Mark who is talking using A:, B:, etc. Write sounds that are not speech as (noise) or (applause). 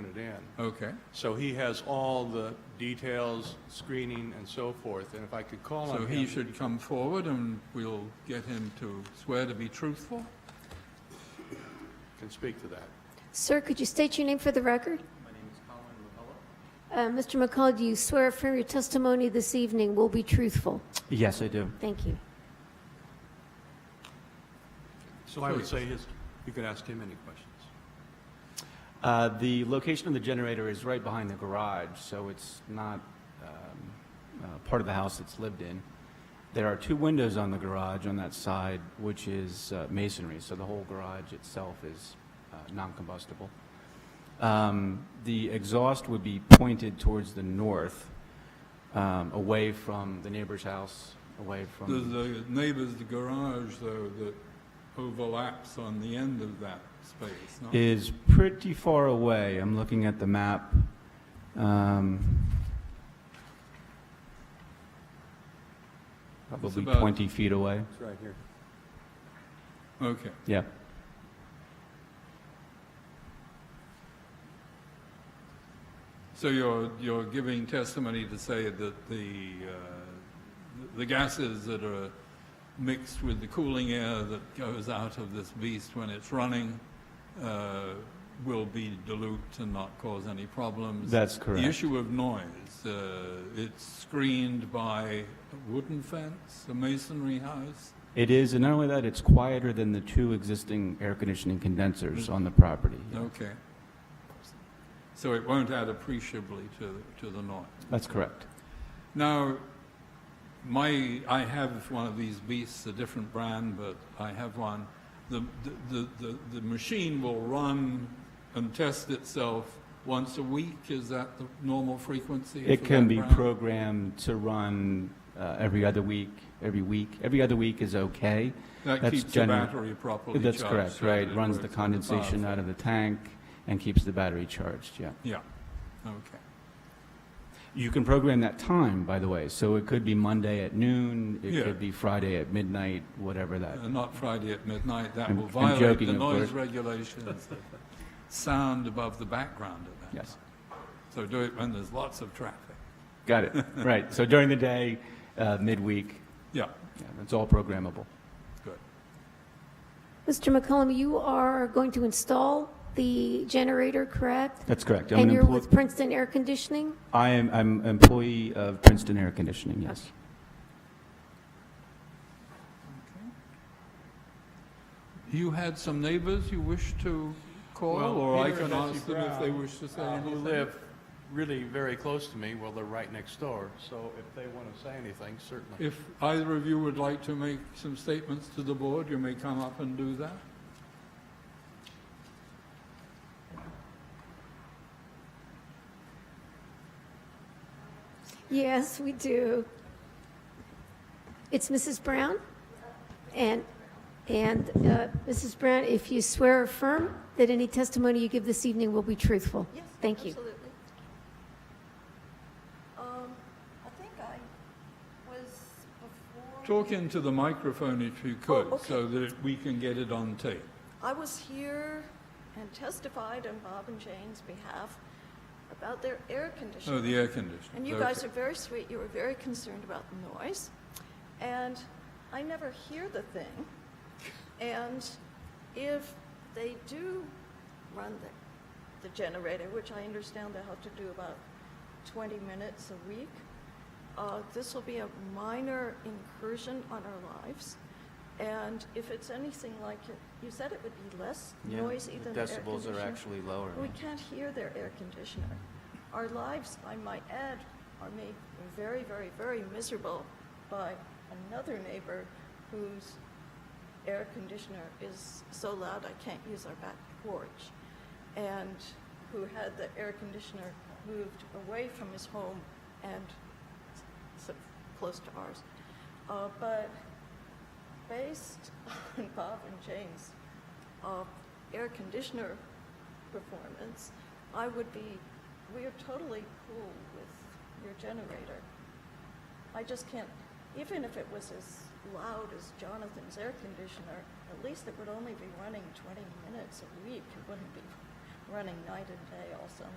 A: it in.
B: Okay,
A: So he has all the details, screening, and so forth, and if I could call on
B: so
A: him...
B: he should come forward and we'll get him to swear to be truthful?
A: Can speak to that.
C: Sir, could you state your name for the record? My name is Colin McCullough. Mr. McCullough, do you swear affirm your testimony this evening will be truthful?
D: Yes, I do.
C: Thank you.
A: So I would say his, you could ask him any questions.
D: Uh, The location of the generator is right behind the garage, so it's not um, uh, part of the house it's lived in. There are two windows on the garage on that side, which is uh, masonry, so the whole garage itself is uh, non-combustible. Um, The exhaust would be pointed towards the north, um, away from the neighbor's house, away
B: There's
D: from...
B: the neighbor's garage, though, that overlaps on the end of that space, no?
D: Is pretty far away. I'm looking at the map. Um, Probably
B: about-
D: 20 feet away.
A: It's right here.
B: Okay,
D: Yeah.
B: so you're, you're giving testimony to say that the, uh, the gases that are mixed with the cooling air that goes out of this beast when it's running uh, will be dilute and not cause any problems?
D: That's
B: The
D: correct.
B: issue of noise, uh, it's screened by a wooden fence, a masonry house?
D: It is, and not only that, it's quieter than the two existing air conditioning
B: Mm-hmm.
D: condensers on the property.
B: Okay. So it won't add appreciably to, to the noise.
D: That's correct.
B: Now, my, I have one of these beasts, a different brand, but I have one. The, the, the, the, the machine will run and test itself once a week. Is that the normal frequency?
D: It
B: for
D: can
B: that
D: be
B: brand?
D: programmed to run uh, every other week, every week. Every other week is okay.
B: That
D: that's
B: keeps the
D: general-
B: battery properly charged.
D: That's correct,
B: so that
D: right?
B: it
D: Runs the
B: works on power
D: condensation out of the tank and keeps the battery charged, yeah.
B: Yeah, okay.
D: You can program that time, by the way, so it could be Monday at noon,
B: Yeah.
D: it could be Friday at midnight, whatever that.
B: Uh, Not Friday at midnight, that
D: I'm-
B: will
D: I'm
B: violate
D: joking,
B: the
D: of
B: noise
D: course.
B: regulations. that Sound above the background at that
D: Yes,
B: time. So do it when there's lots of traffic.
D: got it, (laughs) right. So during the day, uh, midweek,
B: Yeah,
D: yeah, that's all programmable.
B: good.
C: Mr. McCollum, you are going to install the generator, correct?
D: That's correct. I'm
C: And
D: an
C: you're
D: employ-
C: with Princeton Air Conditioning?
D: I am, I'm employee of Princeton Air Conditioning, yes.
B: You had some neighbors you wish to call,
A: Well,
B: or I
A: Peter
B: can
A: and Nancy
B: ask them if they
A: Brown,
B: wish to say
A: uh, Who
B: anything?
A: live really very close to me, well, they're right next door, so if they want to say anything, certainly.
B: If either of you would like to make some statements to the board, you may come up and do that.
C: Yes, we do. It's Mrs. Brown? And, and uh, Mrs. Brown, if you swear or affirm that any testimony you give this evening will be truthful?
E: Yes.
C: Thank you.
E: Absolutely. Um, I think I was before.
B: Talk into the microphone if you could,
E: okay.
B: so that we can get it on tape.
E: I was here and testified on Bob and Jane's behalf about their air
B: Oh,
E: conditioning.
B: the air conditioning.
E: And you guys
B: Okay.
E: are very sweet. You were very concerned about the noise. And I never hear the thing. And if they do run the, the generator, which I understand they have to do about 20 minutes a week, uh, this will be a minor incursion on our lives. And if it's anything like it, you said it would be less noisy than air
D: Decibels are
E: conditioning.
D: actually lower.
E: We can't hear their air conditioner. Our lives, I might add, are made very, very, very miserable by another neighbor whose air conditioner is so loud I can't use our back porch, and who had the air conditioner moved away from his home and s- so close to ours. Uh, but based (laughs) on Bob and Jane's uh, air conditioner performance, I would be, we are totally cool with your generator. I just can't, even if it was as loud as Jonathan's air conditioner, at least it would only be running 20 minutes a week. It wouldn't be running night and day all summer.